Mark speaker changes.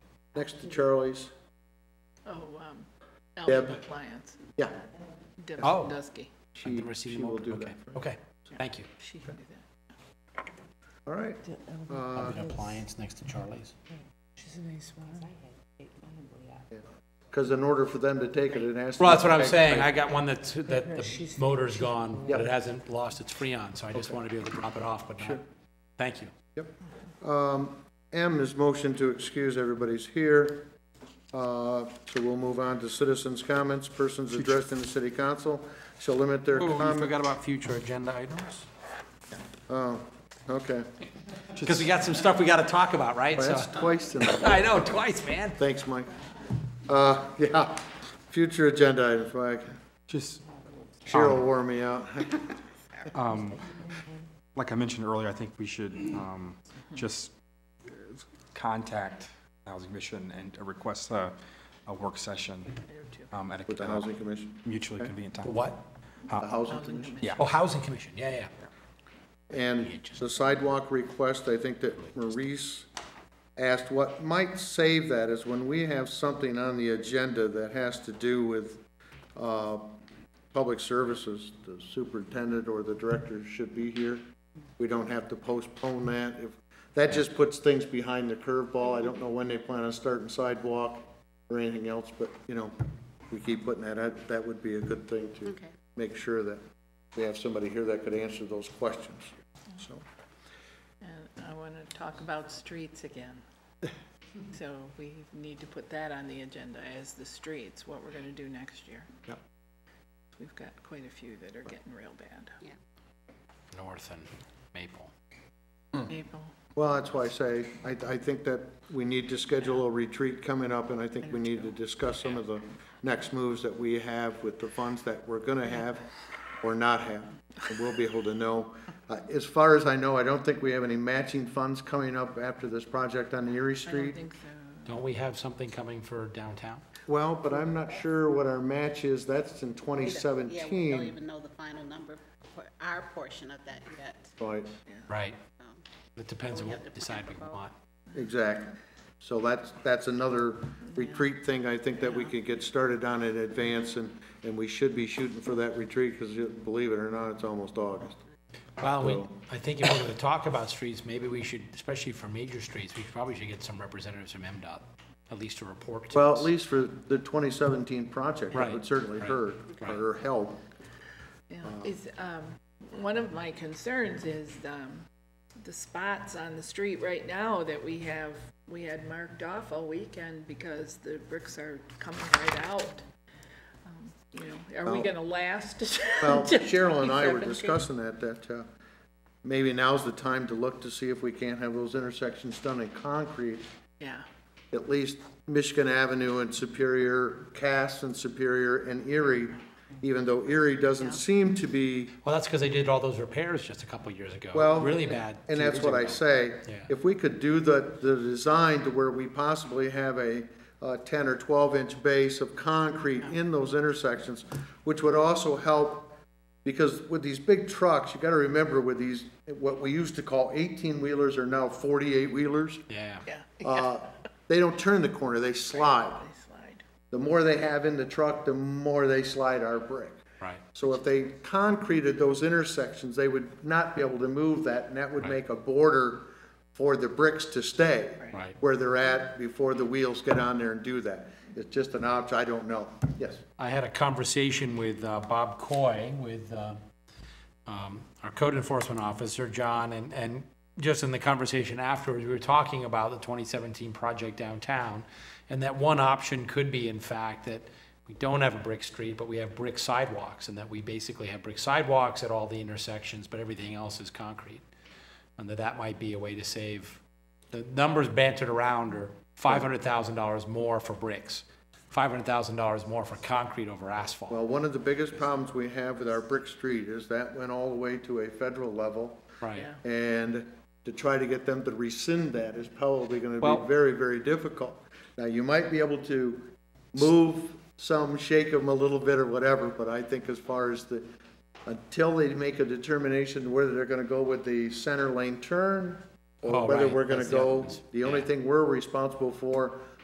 Speaker 1: next to Charlie's.
Speaker 2: Oh, um,
Speaker 1: Deb.
Speaker 2: Alpha Appliance,
Speaker 1: Yeah,
Speaker 2: Deb
Speaker 3: Oh.
Speaker 2: Dusky,
Speaker 1: she,
Speaker 3: The
Speaker 1: she
Speaker 3: receiving
Speaker 1: will
Speaker 3: open,
Speaker 1: do
Speaker 3: okay,
Speaker 1: that.
Speaker 3: Okay, thank you.
Speaker 2: she can do that.
Speaker 1: All right. Uh,
Speaker 3: Of an appliance next to Charlie's.
Speaker 1: Because in order for them to take it, it has to.
Speaker 3: Well, that's
Speaker 1: be
Speaker 3: what I'm
Speaker 1: packed
Speaker 3: saying.
Speaker 1: right.
Speaker 3: I got one that's, that the motor's gone,
Speaker 1: Yep.
Speaker 3: but it hasn't lost its freon, so I just want to be able to drop it off, but not. Thank you.
Speaker 1: Um, M is motion to excuse, everybody's here. Uh, So we'll move on to citizens' comments, persons addressed in the city council shall limit their
Speaker 4: Oh, we
Speaker 1: comment.
Speaker 4: forgot about future agenda items.
Speaker 1: Oh, okay.
Speaker 3: Because we got some stuff we got to talk about, right?
Speaker 1: Well,
Speaker 3: So,
Speaker 1: That's twice tonight.
Speaker 3: I know, twice, man.
Speaker 1: Thanks, Mike. Uh, yeah, future agenda items, Mike.
Speaker 4: Just,
Speaker 1: Cheryl wore me out.
Speaker 4: um, like I mentioned earlier, I think we should, um, just uh, contact Housing Commission and request a, a work session, um, at
Speaker 1: With the
Speaker 4: a
Speaker 1: housing commission,
Speaker 4: mutually convenient time.
Speaker 3: What? uh,
Speaker 1: the housing commission.
Speaker 3: Oh, Housing Commission, yeah, yeah.
Speaker 1: And the sidewalk request, I think that Maurice asked, what might save that is when we have something on the agenda that has to do with, uh, public services, the superintendent or the director should be here. We don't have to postpone that. If, that just puts things behind the curveball. I don't know when they plan on starting sidewalk or anything else, but, you know, we keep putting that out. That would be a good thing to
Speaker 2: Okay.
Speaker 1: make sure that we have somebody here that could answer those questions, so.
Speaker 2: And I want to talk about streets again. So we need to put that on the agenda as the streets, what we're going to do next year.
Speaker 1: Yep.
Speaker 2: We've got quite a few that are getting real bad.
Speaker 3: North and Maple.
Speaker 2: Maple,
Speaker 1: Well, that's why I say, I, I think that we need to schedule a retreat coming up, and I think we need to discuss some of the next moves that we have with the funds that we're gonna have or not have, and we'll be able to know. Uh, As far as I know, I don't think we have any matching funds coming up after this project on Erie
Speaker 2: I don't
Speaker 1: Street.
Speaker 2: think so.
Speaker 3: Don't we have something coming for downtown?
Speaker 1: Well, but I'm not sure what our match is, that's in twenty
Speaker 5: We don't- Yeah, we don't
Speaker 1: seventeen.
Speaker 5: even know the final number for our portion of that yet.
Speaker 1: Right,
Speaker 3: Right.
Speaker 5: Um,
Speaker 3: It depends on what we decide we want.
Speaker 1: exactly. So that's, that's another retreat thing, I think that we could get started on in advance, and, and we should be shooting for that retreat, because believe it or not, it's almost August.
Speaker 3: Well, we, I think if we're going to talk about streets, maybe we should, especially for major streets, we probably should get some representatives from MDOT, at least to report to
Speaker 1: Well, at
Speaker 3: us.
Speaker 1: least for the twenty seventeen project, it
Speaker 3: Right,
Speaker 1: would certainly
Speaker 3: right,
Speaker 1: hurt,
Speaker 3: right.
Speaker 1: or help.
Speaker 2: Yeah, is, um, one of my concerns is, um, the spots on the street right now that we have, we had marked off all weekend because the bricks are coming right out. Um, You know, are we
Speaker 1: Well-
Speaker 2: gonna last?
Speaker 1: Well,
Speaker 2: till
Speaker 1: Cheryl and I were
Speaker 2: 2017?
Speaker 1: discussing that, that, uh, maybe now's the time to look to see if we can't have those intersections done in concrete,
Speaker 2: Yeah,
Speaker 1: at least Michigan Avenue and Superior, Cass and Superior and Erie, even though Erie doesn't seem to be
Speaker 3: Well, that's because they did all those repairs just a couple years ago.
Speaker 1: Well,
Speaker 3: Really bad.
Speaker 1: And
Speaker 3: two
Speaker 1: that's
Speaker 3: years
Speaker 1: what I
Speaker 3: ago.
Speaker 1: say,
Speaker 3: Yeah.
Speaker 1: if we could do the, the design to where we possibly have a uh, ten or twelve inch base of concrete in those intersections, which would also help, because with these big trucks, you gotta remember with these, what we used to call eighteen wheelers are now forty-eight wheelers.
Speaker 3: Yeah.
Speaker 2: yeah,
Speaker 1: Uh, They don't turn the corner, they slide.
Speaker 2: they slide.
Speaker 1: The more they have in the truck, the more they slide our brick.
Speaker 3: Right.
Speaker 1: So if they concreted those intersections, they would not be able to move that, and that would make a border for the bricks to stay
Speaker 3: Right.
Speaker 1: where they're at before the wheels get on there and do that. It's just an option, I don't know. Yes,
Speaker 3: I had a conversation with uh, Bob Coy, with uh, um, our code enforcement officer, John, and, and just in the conversation afterwards, we were talking about the 2017 project downtown, and that one option could be, in fact, that we don't have a brick street, but we have brick sidewalks, and that we basically have brick sidewalks at all the intersections, but everything else is concrete. And that that might be a way to save, the numbers bantered around are $500,000 more for bricks, $500,000 more for concrete over asphalt.
Speaker 1: well, one of the biggest problems we have with our brick street is that went all the way to a federal level,
Speaker 3: Right.
Speaker 2: Yeah.
Speaker 1: and to try to get them to rescind that is probably gonna
Speaker 3: Well-
Speaker 1: be very, very difficult. Now, you might be able to move some, shake them a little bit or whatever, but I think as far as the, until they make a determination whether they're gonna go with the center lane turn,
Speaker 3: Oh,
Speaker 1: or whether
Speaker 3: right,
Speaker 1: we're gonna
Speaker 3: that's the
Speaker 1: go,
Speaker 3: others,
Speaker 1: the only
Speaker 3: yeah.
Speaker 1: thing we're responsible for